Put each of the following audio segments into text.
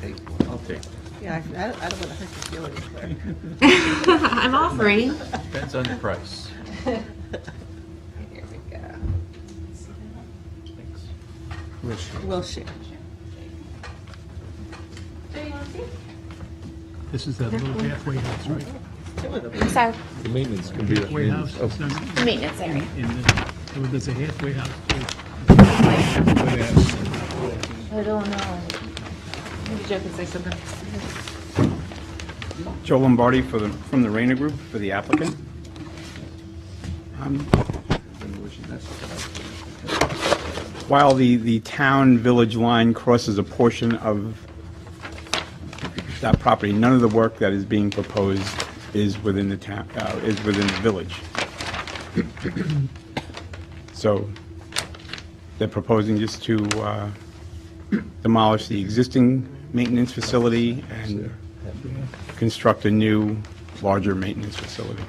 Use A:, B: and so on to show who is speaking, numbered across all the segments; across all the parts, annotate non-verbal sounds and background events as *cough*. A: take one.
B: I'll take it.
C: Yeah, I, I don't want to hurt your feelings, Claire.
D: *laughs* I'm offering.
B: Depends on the price.
D: Here we go.
B: Thanks.
C: We'll share.
E: This is that little halfway house, right?
D: So,
F: The maintenance can be.
E: Halfway house, it's not,
D: maintenance area.
E: in the, well, there's a halfway house.
D: I don't know. Maybe Joe can say something.
G: Joe Lombardi for the, from the Rayner Group, for the applicant. Um, While the, the town-village line crosses a portion of that property, none of the work that is being proposed is within the town, uh, is within the village. So they're proposing just to uh, demolish the existing maintenance facility and construct a new, larger maintenance facility.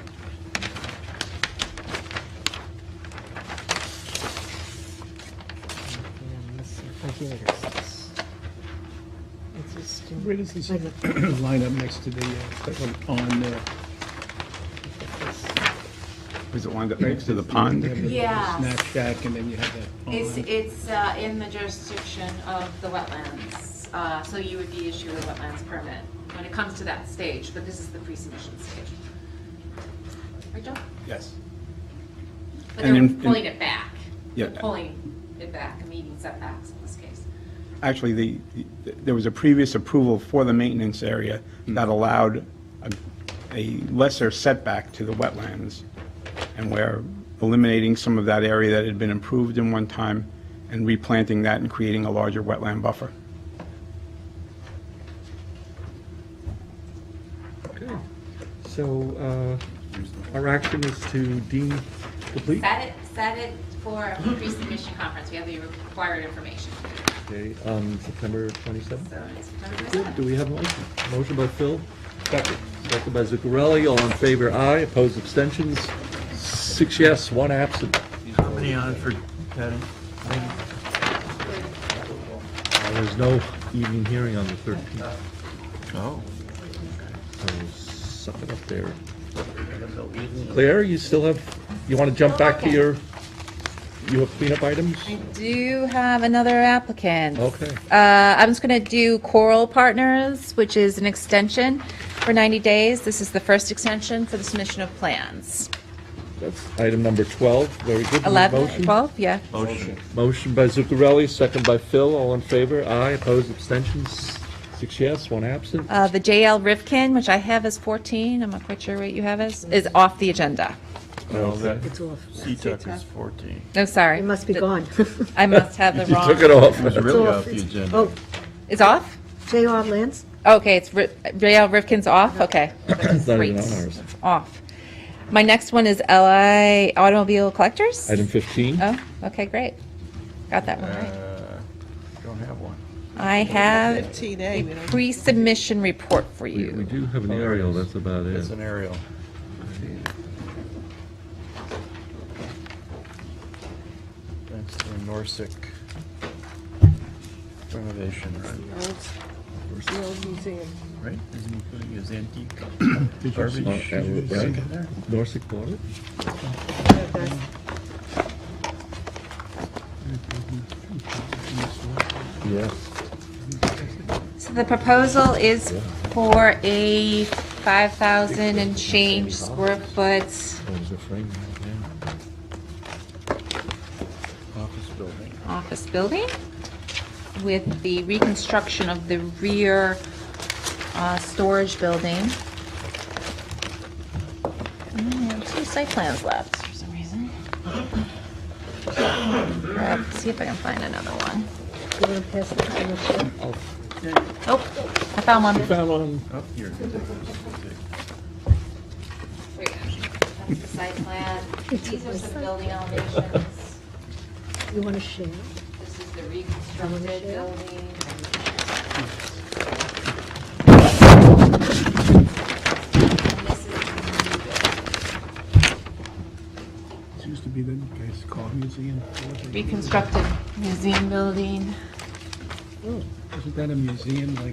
E: Where does this line up next to the, uh, on, uh,
G: Is it lined up next to the pond?
E: you
H: Yeah.
E: have the snack shack and then you have that
H: It's,
E: pond?
H: it's uh, in the jurisdiction of the wetlands, uh, so you would be issued a wetlands permit when it comes to that stage, but this is the pre-submission stage. Right, Joe?
G: Yes.
H: But
G: And
H: they're
G: in-
H: pulling it back. They're
G: Yeah.
H: Pulling it back, meeting setbacks in this case.
G: Actually, the, the- there was a previous approval for the maintenance area that allowed a- a lesser setback to the wetlands. And we're eliminating some of that area that had been improved in one time and replanting that and creating a larger wetland buffer.
F: Okay. So, uh, our action is to deem complete?
H: Set it, set it for a pre-submission conference, we have the required information.
F: Okay, on September
H: So
F: 27th.
H: it's September
F: Good. Do
H: 27th.
F: we have a motion? Motion by Phil. Second. Second by Zuccarelli. All in favor, aye. Opposed, abstentions. Six yes, one absent.
E: Company on for, Patty.
F: Uh, There's no evening hearing on the 13th,
B: Oh.
F: so suck it up there. Claire, you still have, you want to jump back to your, you have cleanup items?
D: Do have another applicant.
F: Okay.
D: Uh, I'm just going to do Coral Partners, which is an extension for 90 days. This is the first extension for the submission of plans.
F: That's item number 12. Very good. Need a
D: 11,
F: motion? Oh.
D: 12, yeah.
B: Motion.
F: Motion by Zuccarelli, second by Phil. All in favor? Aye. Opposed? Abstentions? Six yes, one absent.
D: Uh, The JL Rivkin, which I have as 14, I'm not quite sure what you have as, is off the agenda.
B: No, that,
I: It's off.
B: C-Tuck is 14.
D: No, sorry.
I: It must be
D: Th-
I: gone. *laughs*
D: I must have the
F: *laughs* You
D: wrong.
F: took it off.
B: It's really
I: off.
B: off the agenda.
I: Oh,
D: It's off?
I: J.R. Lance?
D: Okay, it's Ri- JL Rivkin's off? Okay.
F: It's *coughs* not
D: Great.
F: even on ours.
D: Off. My next one is LI Automobile Collectors?
F: Item 15.
D: Oh, okay, great. Got that one right.
B: Uh, Don't have one.
D: I have
C: 15A, we don't.
D: pre-submission report for
F: We we
D: you.
F: do have an aerial, that's about it.
B: It's an aerial. That's the Norsick renovation, right?
C: The old museum.
B: Right? Isn't he putting his antique
E: Did you see-
B: garbage
F: Oh, that was-
B: sink in there?
F: Norsec bought it?
C: Yeah, that's-
F: Yeah.
D: So the proposal is for a 5,000 and change square foot
F: That was a frame, yeah.
B: Office building.
D: office building with the reconstruction of the rear uh, storage building. I only have two site plans left for some reason. Uh, See if I can find another one.
I: You want to pass the final check?
D: Oh, I found one.
F: Found one.
B: Up here.
H: Three options. That's the site plan, these are some building elevations.
I: You want to share?
H: This is the reconstructed building. And this is the new building.
E: It used to be the, guys called museum.
D: Reconstructed museum building.
E: Oh, Isn't that a museum like